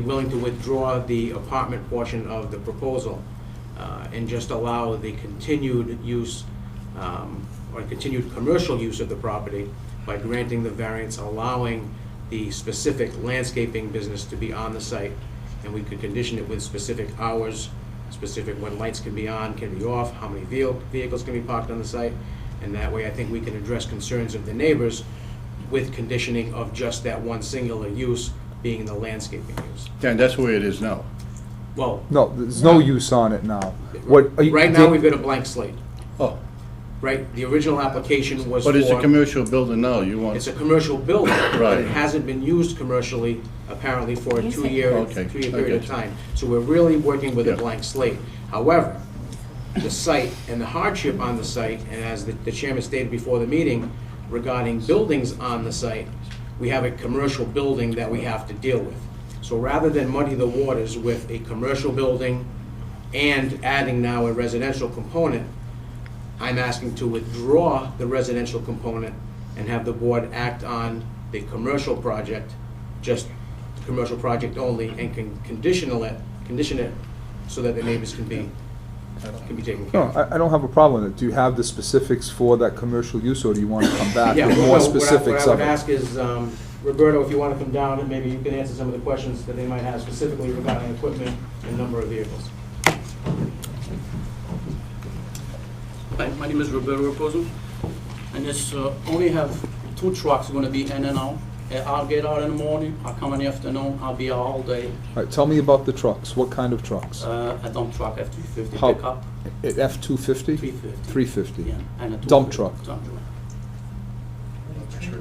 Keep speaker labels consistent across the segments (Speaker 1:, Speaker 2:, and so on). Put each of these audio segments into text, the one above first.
Speaker 1: willing to withdraw the apartment portion of the proposal uh, and just allow the continued use um, or continued commercial use of the property by granting the variance, allowing the specific landscaping business to be on the site. And we could condition it with specific hours, specific when lights can be on, can be off, how many vehi- vehicles can be parked on the site. And that way, I think we can address concerns of the neighbors with conditioning of just that one singular use being the landscaping use.
Speaker 2: Yeah, and that's the way it is now.
Speaker 1: Well,
Speaker 3: No, there's no use on it now. What? are you-
Speaker 1: right now, we've got a blank slate,
Speaker 2: Oh,
Speaker 1: right? The original application was for.
Speaker 2: but it's a commercial building now, you
Speaker 1: It's
Speaker 2: want,
Speaker 1: a commercial building. but It
Speaker 2: Right.
Speaker 1: hasn't been used commercially apparently for a
Speaker 4: Yes, it
Speaker 1: two-year,
Speaker 2: is. Okay,
Speaker 1: two-year
Speaker 2: I
Speaker 1: period of
Speaker 2: get you.
Speaker 1: time. So we're really working with a
Speaker 2: Yeah.
Speaker 1: blank slate. However, the site and the hardship on the site, and as the the chairman stated before the meeting regarding buildings on the site, we have a commercial building that we have to deal with. So rather than muddy the waters with a commercial building and adding now a residential component, I'm asking to withdraw the residential component and have the board act on the commercial project, just the commercial project only, and can conditional it, condition it so that the neighbors can be, can be taken care
Speaker 3: No,
Speaker 1: of.
Speaker 3: I, I don't have a problem with it. Do you have the specifics for that commercial use, or do you want to come back
Speaker 1: Yeah,
Speaker 3: with
Speaker 1: well,
Speaker 3: more
Speaker 1: what I-
Speaker 3: specifics
Speaker 1: What I
Speaker 3: of
Speaker 1: would ask
Speaker 3: it?
Speaker 1: is, um, Roberto, if you want to come down, and maybe you can answer some of the questions that they might have specifically regarding equipment and number of vehicles.
Speaker 5: Hi, my name is Roberto Raposo, and it's uh, only have two trucks going to be in and out. Uh, I'll get out in the morning, I'll come in the afternoon, I'll be out all day.
Speaker 3: All right, tell me about the trucks. What kind of trucks?
Speaker 5: Uh, A dump truck, F-350
Speaker 3: How-
Speaker 5: pickup,
Speaker 3: F two fifty?
Speaker 5: 350.
Speaker 3: Three fifty.
Speaker 5: yeah, and a
Speaker 3: Dump
Speaker 5: 250
Speaker 3: truck.
Speaker 5: Dump truck.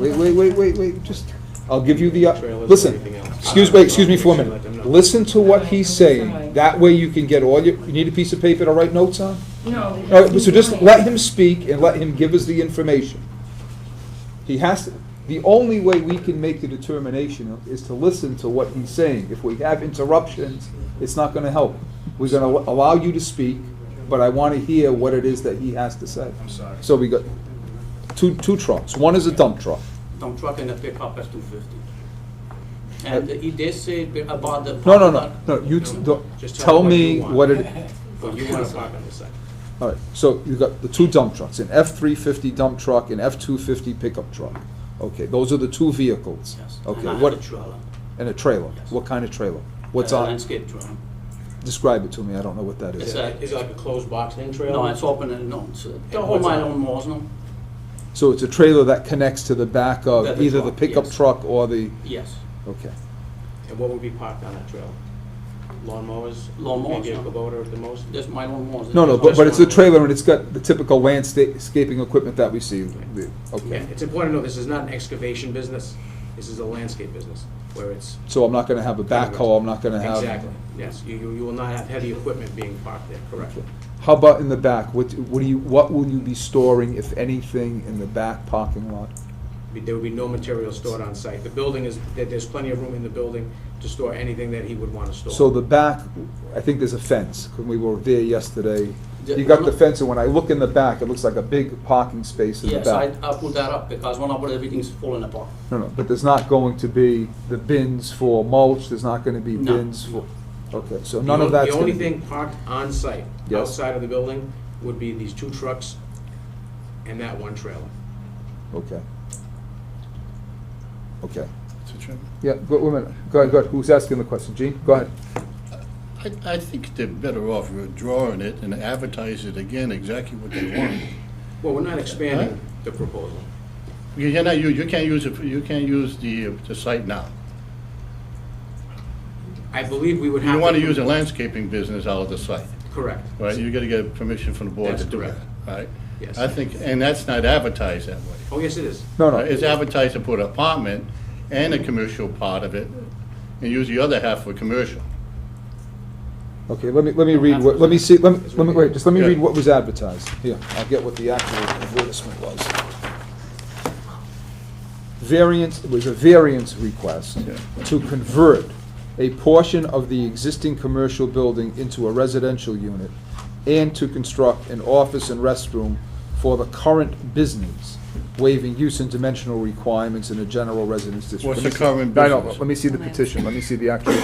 Speaker 3: Wait, wait, wait, wait, wait, just, I'll give you the, uh,
Speaker 1: Trailers or
Speaker 3: listen,
Speaker 1: anything else.
Speaker 3: excuse, wait, excuse me for a
Speaker 1: Let them know.
Speaker 3: minute. Listen to what he's
Speaker 4: Sorry.
Speaker 3: saying. That way you can get all your, you need a piece of paper to write notes on?
Speaker 4: No.
Speaker 3: All right, so just let him speak and let him give us the information. He has to, the only way we can make the determination is to listen to what he's saying. If we have interruptions, it's not gonna help. We're gonna allow you to speak, but I wanna hear what it is that he has to say. I'm sorry. So we got two, two trucks. One is a dump truck.
Speaker 5: Dump truck and a pickup F-250. And he did say b- about the...
Speaker 3: Uh, No, no, no, no, you, t- the-
Speaker 1: Just tell
Speaker 3: tell
Speaker 1: him what you
Speaker 3: me
Speaker 1: want.
Speaker 3: what it,
Speaker 1: But you want to park on the site.
Speaker 3: all right, so you've got the two dump trucks, an F-350 dump truck and F-250 pickup truck. Okay, those are the two vehicles.
Speaker 5: Yes, and
Speaker 3: Okay,
Speaker 5: I have a
Speaker 3: what,
Speaker 5: trailer.
Speaker 3: and a trailer,
Speaker 5: Yes. Uh,
Speaker 3: what kind of trailer? What's
Speaker 5: a
Speaker 3: on,
Speaker 5: Landscape trailer.
Speaker 3: describe it to me, I don't know what that
Speaker 5: It's
Speaker 3: is.
Speaker 5: a-
Speaker 1: Is it like a closed box in trailer?
Speaker 5: No, it's open and no, it's, uh,
Speaker 1: And
Speaker 5: all
Speaker 1: what's
Speaker 5: my
Speaker 1: on it?
Speaker 5: own walls, no?
Speaker 3: So it's a trailer that connects to the back
Speaker 5: The-
Speaker 3: of
Speaker 5: the
Speaker 3: either the
Speaker 5: truck,
Speaker 3: pickup
Speaker 5: yes.
Speaker 3: truck or the,
Speaker 5: Yes,
Speaker 3: okay.
Speaker 1: And what would be parked on that trailer? Lawnmowers?
Speaker 5: Lawnmowers,
Speaker 1: Maybe a
Speaker 5: yeah.
Speaker 1: Kubota at the most?
Speaker 5: just my own walls.
Speaker 3: No, no, but,
Speaker 5: Just
Speaker 3: but it's a
Speaker 5: one.
Speaker 3: trailer and it's got the typical landscaping equipment that we see, The-
Speaker 1: Yeah,
Speaker 3: okay.
Speaker 1: it's important to know, this is not an excavation business, this is a landscape business, where it's,
Speaker 3: So I'm not gonna have a backhoe, I'm not gonna have.
Speaker 1: exactly, yes, you, you you will not have heavy equipment being parked there, correct?
Speaker 3: How about in the back? What, what do you, what will you be storing, if anything, in the back parking lot?
Speaker 1: Be- There will be no material stored on site, the building is, there- there's plenty of room in the building to store anything that he would want to store.
Speaker 3: So the back, I think there's a fence, 'cause we were there yesterday.
Speaker 5: Yeah,
Speaker 3: You got
Speaker 5: no.
Speaker 3: the fence, and when I look in the back, it looks like a big parking space in the
Speaker 5: Yes, I,
Speaker 3: back.
Speaker 5: I put that up because when I put everything's falling apart.
Speaker 3: No, no, but there's not going to be the bins for mulch, there's not gonna be
Speaker 5: No.
Speaker 3: bins for, okay, so
Speaker 1: The
Speaker 3: none
Speaker 1: on-
Speaker 3: of that's
Speaker 1: The
Speaker 3: gonna
Speaker 1: only
Speaker 3: be.
Speaker 1: thing parked on site,
Speaker 3: Yes.
Speaker 1: outside of the building, would be these two trucks and that one trailer.
Speaker 3: Okay. Okay,
Speaker 2: Mr. Chairman?
Speaker 3: yeah, go, wait a minute, go ahead, go ahead, who's asking the question, Gene? Go ahead.
Speaker 2: I, I think they're better off withdrawing it and advertise it again, exactly what they want.
Speaker 1: Well, we're not expanding the proposal.
Speaker 2: You cannot, you, you can't use it, for- you can't use the, the site now.
Speaker 1: I believe we would have.
Speaker 2: You want to use a landscaping business out of the site,
Speaker 1: Correct.
Speaker 2: right? You gotta get permission from the board to
Speaker 1: That's
Speaker 2: do that,
Speaker 1: correct.
Speaker 2: right?
Speaker 1: Yes.
Speaker 2: I think, and that's not advertised that way.
Speaker 1: Oh, yes, it is.
Speaker 3: No, no.
Speaker 2: Uh, It's advertised to put apartment and a commercial part of it, and use the other half for commercial.
Speaker 3: Okay, let me, let me read, what let me see, let me, let me, wait, just let me
Speaker 2: Yeah.
Speaker 3: read what was advertised. Here, I'll get what the actual advertisement was. Variance, it was a variance request
Speaker 2: Yeah.
Speaker 3: to convert a portion of the existing commercial building into a residential unit and to construct an office and restroom for the current business waiving use and dimensional requirements in a general residence district.
Speaker 2: What's
Speaker 3: Let me
Speaker 2: the
Speaker 3: see-
Speaker 2: current
Speaker 3: No, no,
Speaker 2: business?
Speaker 3: Let me see the petition, let me see the actual